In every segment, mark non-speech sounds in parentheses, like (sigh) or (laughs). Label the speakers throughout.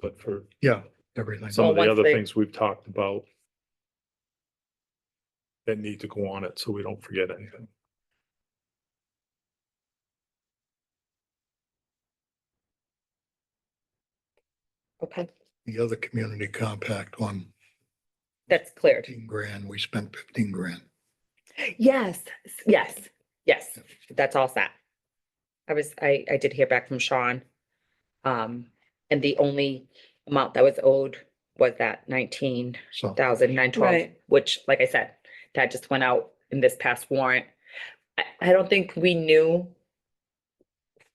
Speaker 1: but for
Speaker 2: Yeah, everything.
Speaker 1: some of the
Speaker 3: Well, once
Speaker 1: other
Speaker 3: they-
Speaker 1: things we've talked about that need to go on it, so we don't forget anything.
Speaker 3: Okay,
Speaker 2: The other community compact one,
Speaker 3: that's cleared.
Speaker 2: fifteen grand, we spent fifteen grand.
Speaker 3: Yes, s- yes, yes, that's all set. I was, I, I did hear back from Sean. Um, and the only amount that was owed was that nineteen
Speaker 2: So
Speaker 3: thousand nine twelve,
Speaker 4: Right.
Speaker 3: which, like I said, that just went out in this past warrant. I, I don't think we knew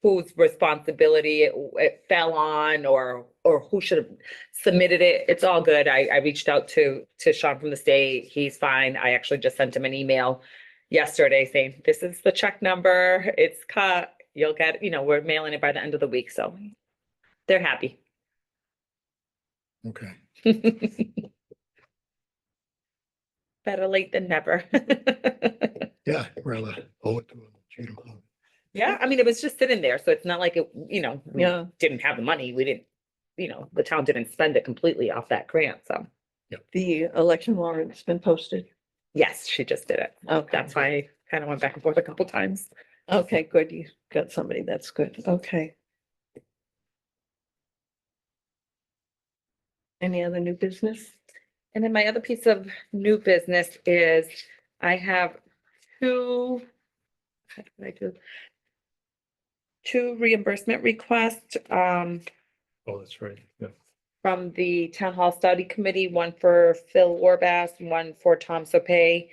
Speaker 3: whose responsibility it, w- it fell on or, or who should have submitted it. It's all good. I, I reached out to, to Sean from the state. He's fine. I actually just sent him an email yesterday saying, this is the check number. It's cut. You'll get, you know, we're mailing it by the end of the week, so they're happy.
Speaker 2: okay.
Speaker 3: Better late than never.
Speaker 2: Yeah, rather owe it to them. you know.
Speaker 3: Yeah, I mean, it was just sitting there, so it's not like it, you know, we
Speaker 4: Yeah.
Speaker 3: didn't have the money, we didn't, you know, the town didn't spend it completely off that grant, so.
Speaker 4: The election warrant's been posted.
Speaker 3: Yes, she just did it.
Speaker 4: Okay,
Speaker 3: That's why I kind of went back and forth a couple times.
Speaker 4: okay, good. You got somebody. That's good. Okay. Any other new business?
Speaker 3: And then my other piece of new business is I have two. How did I do? Two reimbursement requests, um,
Speaker 1: Oh, that's right, yeah.
Speaker 3: from the Town Hall Study Committee, one for Phil Warbass, and one for Tom Sopay,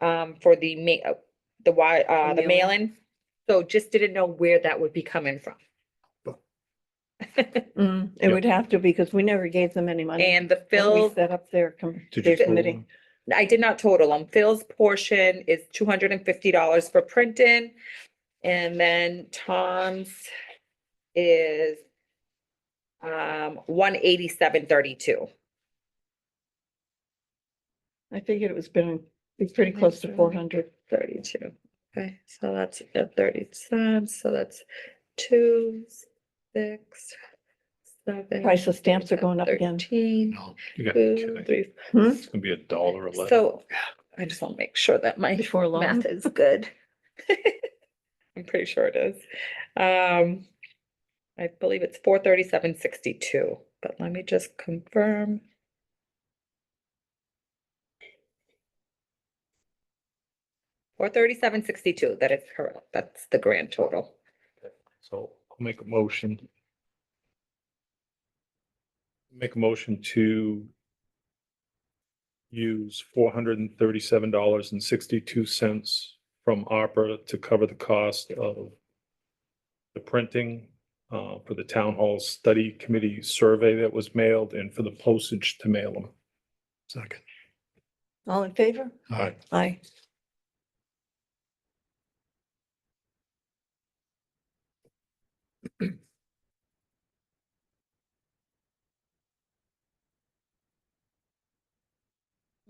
Speaker 3: um, for the ma- uh, the wi- uh, the
Speaker 4: Mailing.
Speaker 3: mail-in. So just didn't know where that would be coming from.
Speaker 4: Mm, it
Speaker 1: Yep.
Speaker 4: would have to because we never gave them any money.
Speaker 3: (laughs) And the
Speaker 4: when we
Speaker 3: Phil,
Speaker 4: Set up their, com-
Speaker 1: Did
Speaker 4: their
Speaker 1: you total
Speaker 4: committee.
Speaker 1: them?
Speaker 3: I did not total them. Phil's portion is two hundred and fifty dollars for printing. And then Tom's is um, one eighty-seven thirty-two.
Speaker 4: I figured it was been, be pretty close to
Speaker 3: Ninety-seven.
Speaker 4: four hundred.
Speaker 3: thirty-two. Okay, so that's at thirty cents, so that's two, six, seven.
Speaker 4: Price of stamps are going up again.
Speaker 3: Thirteen,
Speaker 2: No,
Speaker 1: You got
Speaker 3: two,
Speaker 1: kidding.
Speaker 3: three,
Speaker 1: It's gonna be a dollar a letter.
Speaker 3: so I just want to make sure that my
Speaker 4: Before long.
Speaker 3: math is good. (laughs) I'm pretty sure it is. Um, I believe it's four thirty-seven sixty-two, but let me just confirm. Four thirty-seven sixty-two, that is correct. That's the grand total.
Speaker 1: So I'll make a motion. Make a motion to use four hundred and thirty-seven dollars and sixty-two cents from ARPA to cover the cost of the printing uh, for the town hall study committee survey that was mailed and for the postage to mail them.
Speaker 2: Second.
Speaker 4: Hmm? All in favor?
Speaker 2: All right,
Speaker 4: Aye.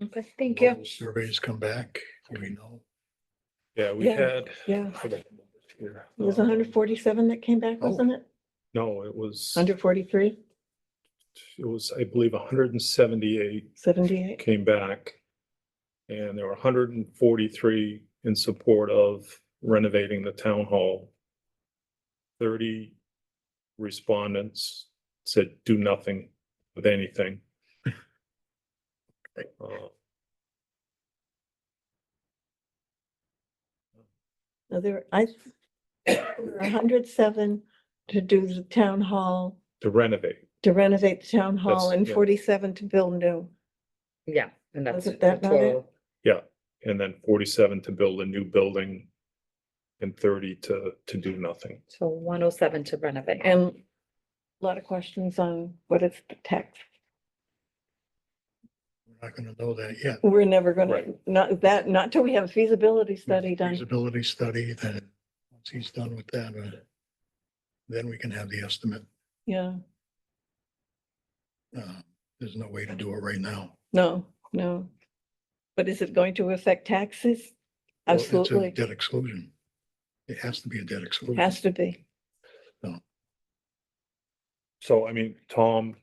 Speaker 3: Okay, thank
Speaker 2: will Surveys come back, we know.
Speaker 1: Yeah, we
Speaker 4: Yeah.
Speaker 1: had.
Speaker 4: Yeah.
Speaker 1: I don't remember here.
Speaker 4: It was hundred forty-seven that came back,
Speaker 2: Oh.
Speaker 4: wasn't it?
Speaker 1: No, it was,
Speaker 4: Hundred forty-three,
Speaker 1: it was, I believe, hundred and seventy-eight
Speaker 4: seventy-eight?
Speaker 1: came back. And there were hundred and forty-three in support of renovating the town hall. Thirty respondents said do nothing with anything. Uh,
Speaker 4: No, there, I, hundred seven to do the town hall,
Speaker 1: To renovate,
Speaker 4: to renovate the town hall
Speaker 1: That's-
Speaker 4: and
Speaker 1: yeah.
Speaker 4: forty-seven to build new.
Speaker 3: Yeah, and that's.
Speaker 4: Wasn't
Speaker 3: the
Speaker 4: that not it?
Speaker 3: total.
Speaker 1: and then forty-seven to build a new building. And thirty to, to do nothing.
Speaker 3: So one oh seven to renovate.
Speaker 4: And a lot of questions on what is the tax.
Speaker 2: We're not gonna know that yet.
Speaker 4: We're never gonna,
Speaker 1: Right.
Speaker 4: not that, not till we have a feasibility study done.
Speaker 2: Feasibility study, then, once he's done with that, uh, then we can have the estimate.
Speaker 4: Yeah,
Speaker 2: Uh, There's no way to do it right now.
Speaker 4: no, no. But is it going to affect taxes?
Speaker 2: Well, it's a
Speaker 4: Absolutely,
Speaker 2: Debt exclusion. It has to be a debt exclusion.
Speaker 4: has to be.
Speaker 1: So I mean, Tom,